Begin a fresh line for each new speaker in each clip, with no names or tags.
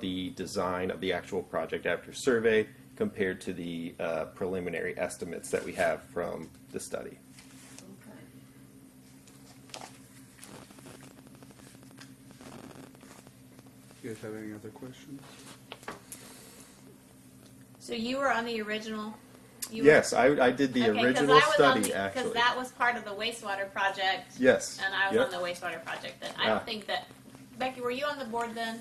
the design of the actual project after survey compared to the uh, preliminary estimates that we have from the study.
Okay.
You guys have any other questions?
So you were on the original. You
Yes, I, I did the original study,
Because
actually.
that was part of the wastewater project.
Yes.
And I was
Yep.
on the wastewater project then.
Ah.
I don't think that. Becky, were you on the board then?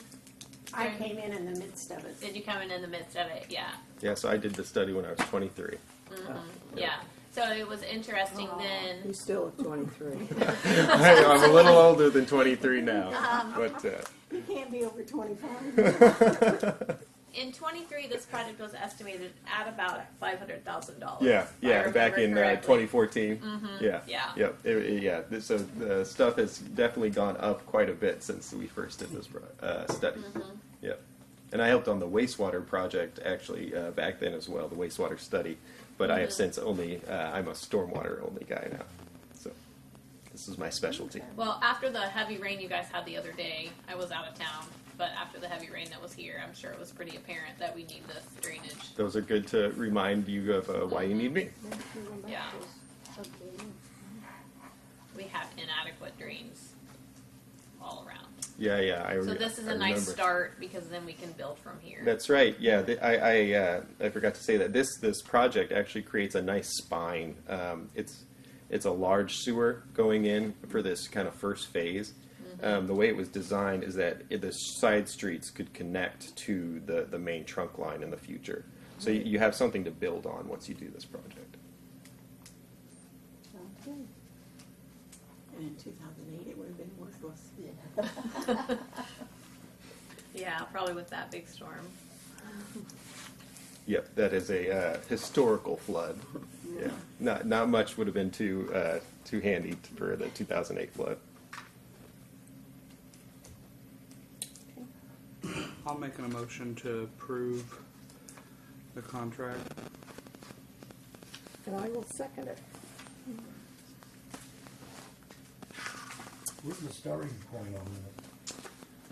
I
Okay.
came in in the midst of it.
Did you come in in the midst of it? Yeah.
Yeah, so I did the study when I was 23.
Mhm. Yeah. So it was interesting then.
He's still at 23.
I, I'm a little older than 23 now,
Um.
but.
You can't be over twenty-five.
Uh,
In 23, this project was estimated at about $500,000.
yeah,
if I
yeah, back
remember
in uh, 2014.
correctly.
Yeah,
Mm-hmm. Yeah.
yep, it- it- yeah. th- So the stuff has definitely gone up quite a bit since we first did this pro- uh, study.
Mm-hmm.
Yep, and I helped on the wastewater project actually uh, back then as well, the wastewater study. But I have
Mm-hmm.
since only uh, I'm a stormwater only guy now, so this is my specialty.
Well, after the heavy rain you guys had the other day, I was out of town. But after the heavy rain that was here, I'm sure it was pretty apparent that we need this drainage.
Those are good to remind you of uh, why you need me.
Mm-hmm. Yeah. We have inadequate drains all around.
Yeah, Oh, yeah. I
So
re-
this is
I
a nice
remember.
start because then we can build from here.
That's right. Yeah, the, I I, uh, I forgot to say that this this project actually creates a nice spine. Um, it's it's a large sewer going in for this kind of first phase. Um, the way it was designed is that it, the side streets could connect to the the main trunk line in the future. So you, you have something to build on once you do this project.
And in 2008, it would have been worthless.
yeah, probably with that big storm.
Yep, that is a uh, historical flood. Yeah, not not much would have been too uh, too handy for the 2008 flood.
I'll make an emotion to approve the contract.
And I will second it.
Where's the starting point on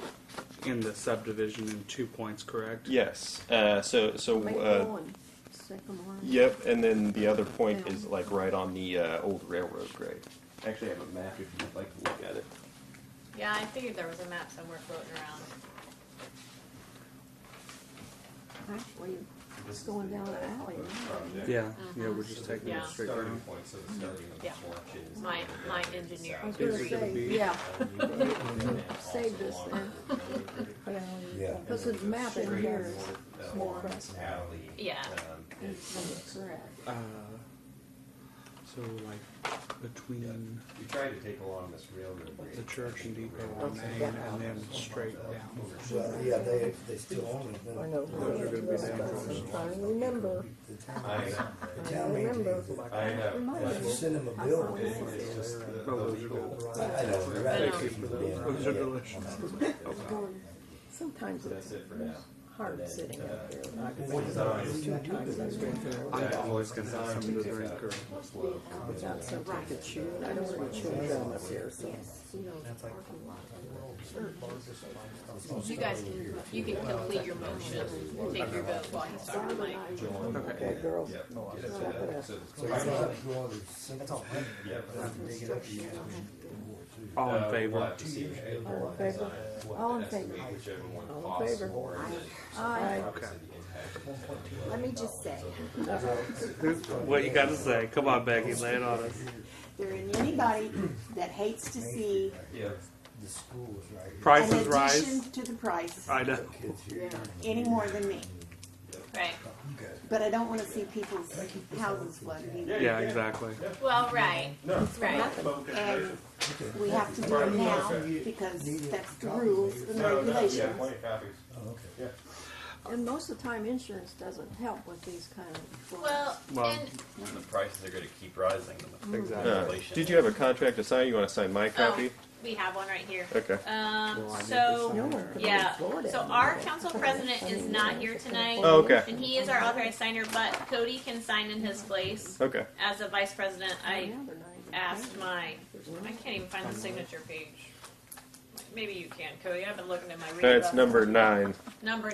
that?
In the subdivision in two points, correct?
Yes. Uh, so so.
Make
uh,
one, second one.
Yep, and then the other point is like right on the uh, old railroad grade. Actually, I have a map if you'd like to look at it.
Yeah, I figured there was a map somewhere floating around.
Actually, it's going down the alley.
Yeah, yeah, we're
Uh-huh.
just taking it
Yeah.
straight down.
point, so the starting of the
Yeah.
watch is.
My my engineer.
I was
Is
gonna
it gonna
say,
be-
yeah,
Save
Oh, Save this then. um,
Yeah.
because the map in here is more impressive.
Alley.
Yeah.
uh, um,
That's
it's-
correct.
Uh, so like between
We tried to take along this railroad.
the
bridge.
church and depot on Main and then straight down.
Well, yeah, they, they still own it.
I know.
Those are gonna be dangerous.
I'm trying to remember,
The town,
I know,
the town
remember.
maintains it.
I know.
If you send them a bill.
It- It's just the, the
Oh, those are
legal.
good.
I know, you're right.
Thank you
for those. Those are delicious.
going, sometimes
That's
it's
it uh, for now.
hard sitting out there.
What is ours?
Two times I've been there
I'm always gonna have something to drink or
without something to chew, and I don't want to chew gum up here, so.
You guys can you can complete your motion, take your vote while he's talking, Mike.
Okay, girls,
Yep.
Oh,
stop
Get it to that.
it
So
So you
it's-
don't have to go on the simple.
Yep.
Dig it up, you use it.
all in
Uh, we'll
favor.
have to see the
up. All in
design,
favor?
what
All
the
in favor?
estimate, whichever one
All in
costs
favor?
more, and then
Aye.
obviously the impact is gonna be
Let me just say,
What you gotta say? Come on, Becky, lay it on us.
there isn't anybody that hates to see
Yeah.
The school is right here.
an
Prices
addition
rise.
to the price
I know.
Kids here.
any more than me.
Right.
But I don't want to see people's houses flooded either.
Yeah, exactly.
Well, right. Right.
And we have to do it now because that's the rules and regulations.
copies.
Oh, okay.
And most of the time, insurance doesn't help with these kind of. floods.
Well,
Well,
and
And the prices are gonna keep rising.
Exactly.
Uh, did you have a contract to sign? You want to sign my copy?
Oh, we have one right here.
Okay.
Um,
Well, I need
so,
this.
No one could
yeah,
afford it.
so our council president is not here tonight.
Oh, okay.
And he is our authorized signer, but Cody can sign in his place.
Okay.
As a vice president, I
Now they're not even
asked my,
paying.
I can't even find the signature page. maybe you can, Cody. I've been looking at my. read
That's
button.
number nine.
Number